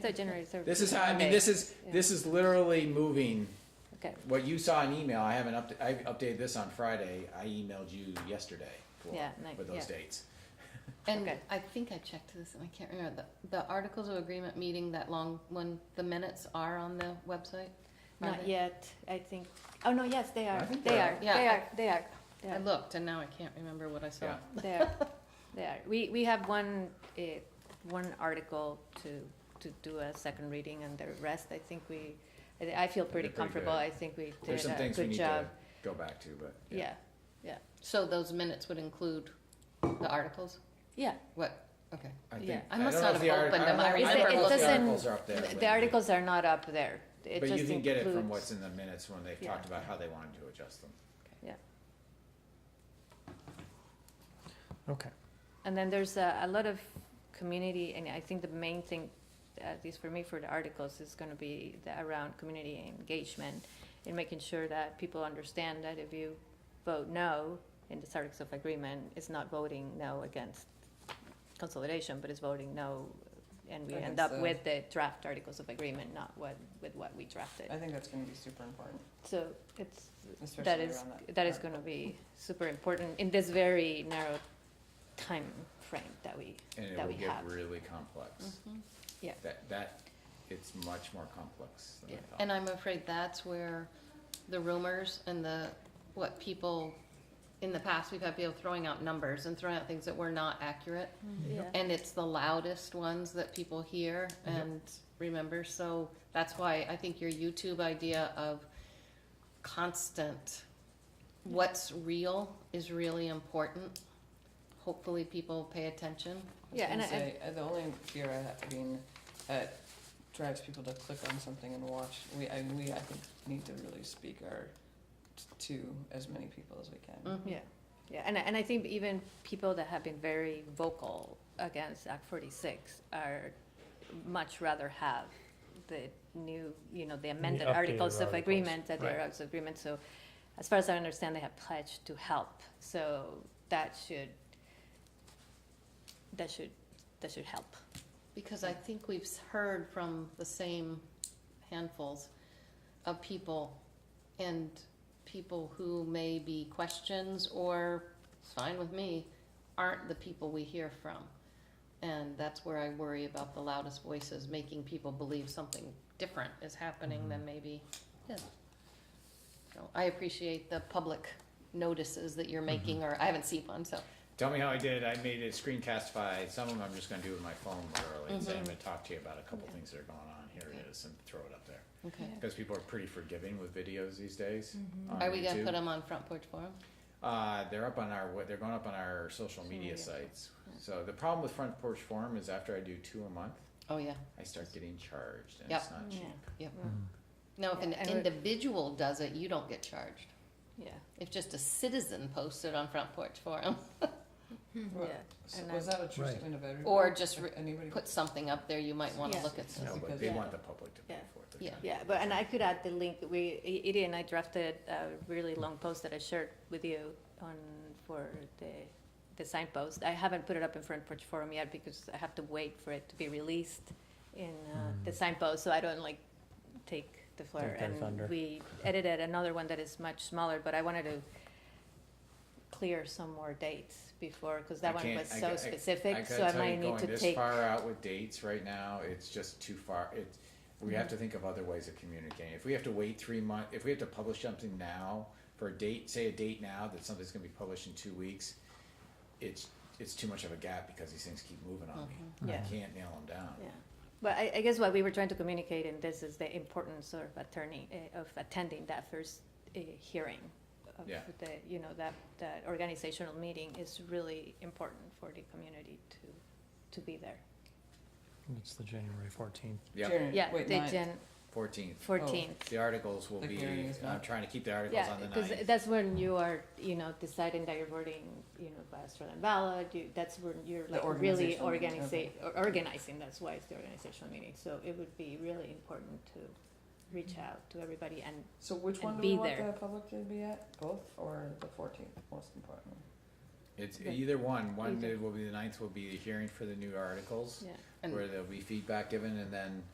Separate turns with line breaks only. So generators are.
This is how, I mean, this is,
Yeah.
this is literally moving,
Okay,
what you saw in email, I haven't updated, I updated this on Friday, I emailed you yesterday
Yeah,
for,
nice,
for
yeah.
those dates.
And
Okay.
I think I checked this, and I can't remember, the, the Articles of Agreement meeting, that long one, the minutes are on the website? Are
not
they?
yet, I think, oh, no, yes, they are,
I think
they
they
are,
are.
they
Yeah, I-
are, they are, they
I
are,
looked, and now I can't remember what I saw.
Yeah.
they are, they are. We, we have one, eh, one article to, to do a second reading, and the rest, I think we, I I feel pretty
pretty
comfortable,
good.
I think we
There's
did
some
a
things we
good
need to
job.
go back to, but.
Yeah, yeah,
So those minutes would include the articles?
yeah.
What, okay.
I think-
Yeah.
I
I must
don't know
not
if
have
the art-
opened
I
them.
don't
I
know if
It's-
remember
it
looking.
The
doesn't-
articles are up there. but-
The articles are not up there, it
But you
just
can get it from
includes-
what's in the minutes when they've
Yeah.
talked about how they wanted to adjust them.
Yeah.
Okay.
And then there's a, a lot of community, and I think the main thing, at least for me, for the articles, is gonna be the, around community engagement and making sure that people understand that if you vote no in this Articles of Agreement, it's not voting no against consolidation, but it's voting no, and we end
Against
up
the-
with the draft Articles of Agreement, not what, with what we drafted.
I think that's gonna be super important,
So it's, that
especially around
is,
that.
that is
part.
gonna be super important in this very narrow time frame that we
And it
That
will
we
get
have. Mm-hmm.
really complex.
Yeah.
That, that, it's much more complex than
Yeah.
I thought.
And I'm afraid that's where the rumors and the, what people, in the past, we've had people throwing out numbers and throwing out things that were not accurate.
Yeah.
And it's the loudest ones that people hear and remember, so that's why I think your YouTube idea of constant, what's real is really important. Hopefully people pay attention.
I was
Yeah, and
gonna
I-
say, uh, the only fear I have, I mean, that drives people to click on something and watch, we, I, we, I think, need to really speak our, t- to as many people as we can.
Mhm.
Yeah, yeah, and I, and I think even people that have been very vocal against Act forty-six are much rather have the new, you know, the amended
updated
articles of
articles,
agreement, that they're
right.
articles of agreement, so as far as I understand, they have pledged to help, so that should, that should, that should help.
Because I think we've heard from the same handfuls of people and people who may be questions or, it's fine with me, aren't the people we hear from. And that's where I worry about the loudest voices, making people believe something different is happening than maybe is. So I appreciate the public notices that you're making, or I haven't seen one, so.
Tell me how I did. I made it screencastify. Some of them I'm just gonna do with my phone literally and say,
Mm-hmm.
I'm gonna talk to you about a couple things that are going on. Here it is and throw it up there.
Okay.
Because people are pretty forgiving with videos these days. on
Mm-hmm. Are we gonna
YouTube.
put them on Front Porch Forum?
Uh, they're up on our, we- they're going up on our social media
media.
sites. So the problem with Front Porch Forum is after I do two a month,
Oh, yeah.
I start getting charged and
Yep.
it's not cheap.
Yep. Now, if an
Yeah, and we-
individual does it, you don't get charged.
Yeah,
If just a citizen posts it on Front porch forum
Well,
Yeah,
so
and
Was that a true
Right.
statement of everybody?
Or just re-
Anybody?
put something up there, you might want to
Yeah.
look at this.
No, but
because-
they
Yeah.
want the public to pay
Yeah.
for it. They're
Yeah.
trying to
yeah,
get
but, and
some-
I could add the link, we, I- Edie and I drafted a really long post that I shared with you on, for the, the signpost. I haven't put it up in Front Porch Forum yet because I have to wait for it to be released in, uh, the signpost, so I don't like take the floor.
Mm. Take their thunder.
And we edited another one that is much smaller, but I wanted to clear some more dates before, because that
I
one
can't-
was
I
so
ca- I-
specific, so
I
I
gotta tell you,
might need
going
to
this
take,
far out with dates right now, it's just too far, it's, we have to think of other ways of communicating. If we have to wait three months, if we have to publish something now for a date, say a date now that something's gonna be published in two weeks, it's, it's too much of a gap because these things keep moving on me. I
Yeah.
can't nail them down.
yeah. But I, I guess what we were trying to communicate in this is the importance of attorney, eh, of attending that first eh, hearing. of
Yeah.
The, you know, that, that organizational meeting is really important for the community to, to be there.
It's the January fourteenth.
Yeah,
January-
Yeah,
wait,
the
ninth.
Jan
fourteenth,
fourteenth.
the articles will
The
be,
hearing is
I'm
not-
trying to keep the articles
Yeah,
Oh, on the
because
ninth.
that's when you are, you know, deciding that you're voting, you know, by Australian ballot, you, that's when you're
The
like really
organizational meeting,
organizing, organizing, that's why it's the organizational meeting. So it would be really important to reach out to everybody and
So which
and
one do
be
we want
there.
the public to be at? Both or the fourteenth, most importantly?
It's either one, one
Either.
will be, the ninth will be the hearing for the new articles,
Yeah.
And-
where there'll be feedback given, and then